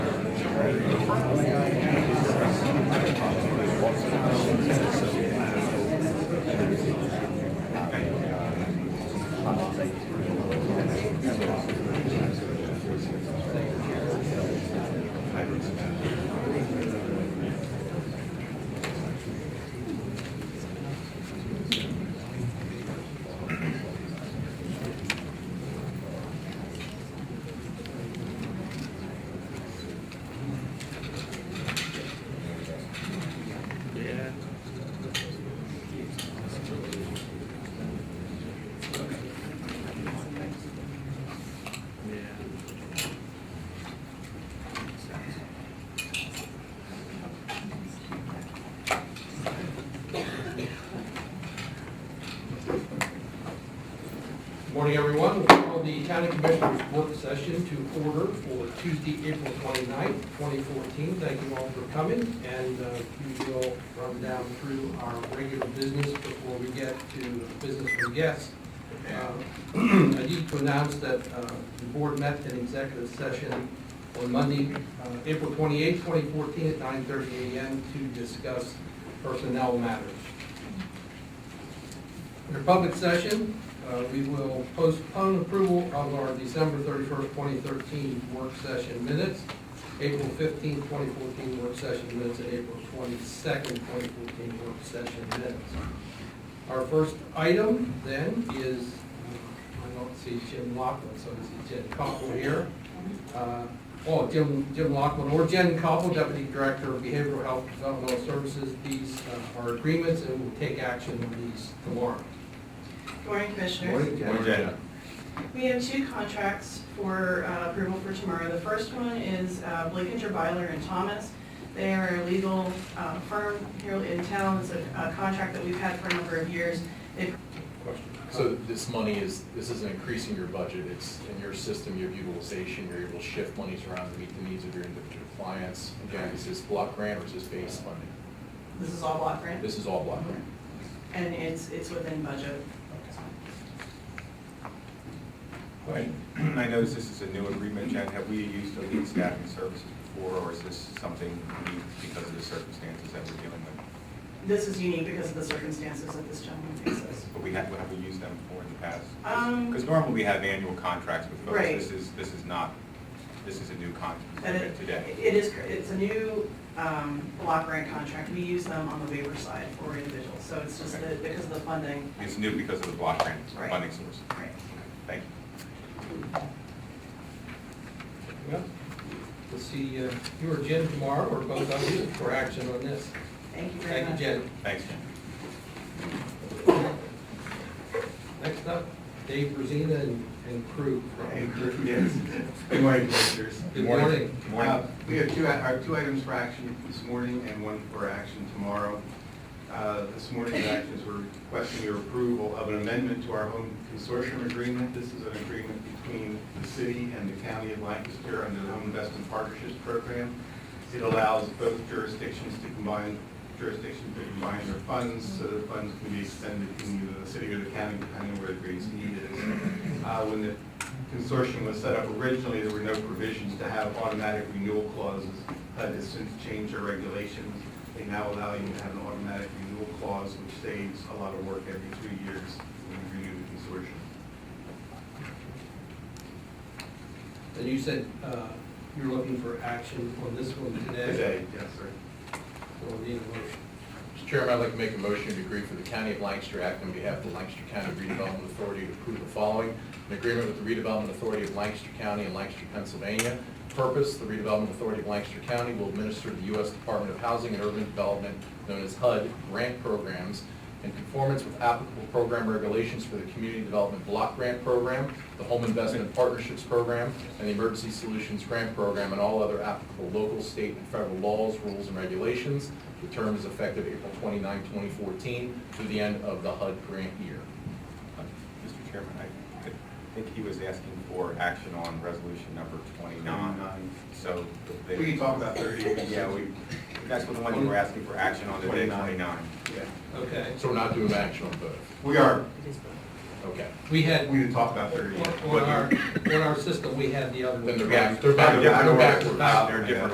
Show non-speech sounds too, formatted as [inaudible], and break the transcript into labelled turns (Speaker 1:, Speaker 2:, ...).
Speaker 1: Morning, everyone. We'll call the county commissioners' work session to order for Tuesday, April 29th, 2014. Thank you all for coming, and uh, we will run down through our regular business before we get to business from guests. Uh, [clears throat] I need to announce that uh, the board met in executive session on Monday, uh, April 28th, 2014, at 9:30 a.m. to discuss personnel matters. Under public session, uh, we will postpone approval of our December thirty-first, twenty thirteen work session minutes, April fifteenth, twenty fourteen work session minutes, and April twenty-second, twenty fourteen work session minutes. Our first item then is, I don't see Jim Lockwood, so I see Jen Koppel here. Uh, Oh, Jim, Jim Lockwood or Jen Koppel, Deputy Director of Behavioral Health and Developmental Services. These uh, are agreements and we'll take action on these tomorrow.
Speaker 2: Good Morning, Commissioners.
Speaker 1: Morning, Jen.
Speaker 2: We have two contracts for uh, approval for tomorrow. The first one is uh, Blakinger, Byler, and Thomas. They are a legal uh, firm here in town. It's a a contract that we've had for a number of years. They-
Speaker 1: Question.
Speaker 3: So this money is, this isn't increasing your budget, it's in your system, your utilization, you're able to shift monies around to meet the needs of your individual clients. Again, is this block grant or is this base funding?
Speaker 2: This is all block grant,
Speaker 3: This is all block grant.
Speaker 2: and it's, it's within budget.
Speaker 4: Right. [clears throat] I notice this is a new agreement, Jen. Have we used elite staffing services before, or is this something unique because of the circumstances that we're dealing with?
Speaker 2: This is unique because of the circumstances that this gentleman faces.
Speaker 4: But we have, have we used them before in the past?
Speaker 2: Um,
Speaker 4: Because normally we have annual contracts with folks.
Speaker 2: Right.
Speaker 4: This is, this is not, this is a new
Speaker 2: And it-
Speaker 4: contract today.
Speaker 2: It is, it's a new um, block grant contract. We use them on the waiver side for individuals, so it's just that because of the funding.
Speaker 4: It's new because of the block grant
Speaker 2: Right.
Speaker 4: funding source.
Speaker 2: Right.
Speaker 4: Thank you.
Speaker 1: Well, We'll see uh, you or Jen tomorrow, or both of you, for action on this.
Speaker 2: Thank you very
Speaker 1: Thank you,
Speaker 2: much.
Speaker 1: Jen.
Speaker 4: Thanks, Jen.
Speaker 1: Next up, Dave Rosina and and crew. from-
Speaker 5: Yes. Good morning, Commissioners.
Speaker 1: Good morning.
Speaker 4: Good morning.
Speaker 5: Uh, We have two, our two items for action this morning and one for action tomorrow. Uh, This morning's actions, we're requesting your approval of an amendment to our home consortium agreement. This is an agreement between the city and the county of Lancaster under the Home Investment Partnerships Program. It allows both jurisdictions to combine, jurisdictions to combine their funds, so the funds can be expended in either the city or the county, depending where the greatest need is. Uh, When the consortium was set up originally, there were no provisions to have automatic renewal clauses. HUD has since changed their regulations. They now allow you to have an automatic renewal clause, which saves a lot of work every three years when you renew the consortium.
Speaker 1: And you said uh, you're looking for action on this one today?
Speaker 5: Today, yes, sir.
Speaker 1: So we'll need a motion.
Speaker 3: Mr. Chairman, I'd like to make a motion to agree for the County of Lancaster Act on behalf of the Lancaster County Redevelopment Authority to approve the following. An agreement with the Redevelopment Authority of Lancaster County and Lancaster, Pennsylvania. Purpose, the Redevelopment Authority of Lancaster County will administer the U.S. Department of Housing and Urban Development, known as HUD, grant programs in conformance with applicable program regulations for the Community Development Block Grant Program, the Home Investment Partnerships Program, and the Emergency Solutions Grant Program, and all other applicable local, state, and federal laws, rules, and regulations. The term is effective April 29, 2014, to the end of the HUD grant year.
Speaker 4: Mr. Chairman, I I think he was asking for action on resolution number 29, so. they-
Speaker 5: We can talk about thirty.
Speaker 4: Yeah, we, that's the one you were asking for action on today,
Speaker 5: 29.
Speaker 4: 29.
Speaker 5: Yeah.
Speaker 1: Okay.
Speaker 3: So we're not doing action on both.
Speaker 5: We are,
Speaker 3: Okay.
Speaker 1: We had,
Speaker 5: we didn't talk about thirty.
Speaker 1: on on our, on our system, we had the other one.
Speaker 3: Then they're back, they're back,
Speaker 5: Yeah,
Speaker 3: they're
Speaker 5: I don't-
Speaker 3: backwards.
Speaker 4: They're different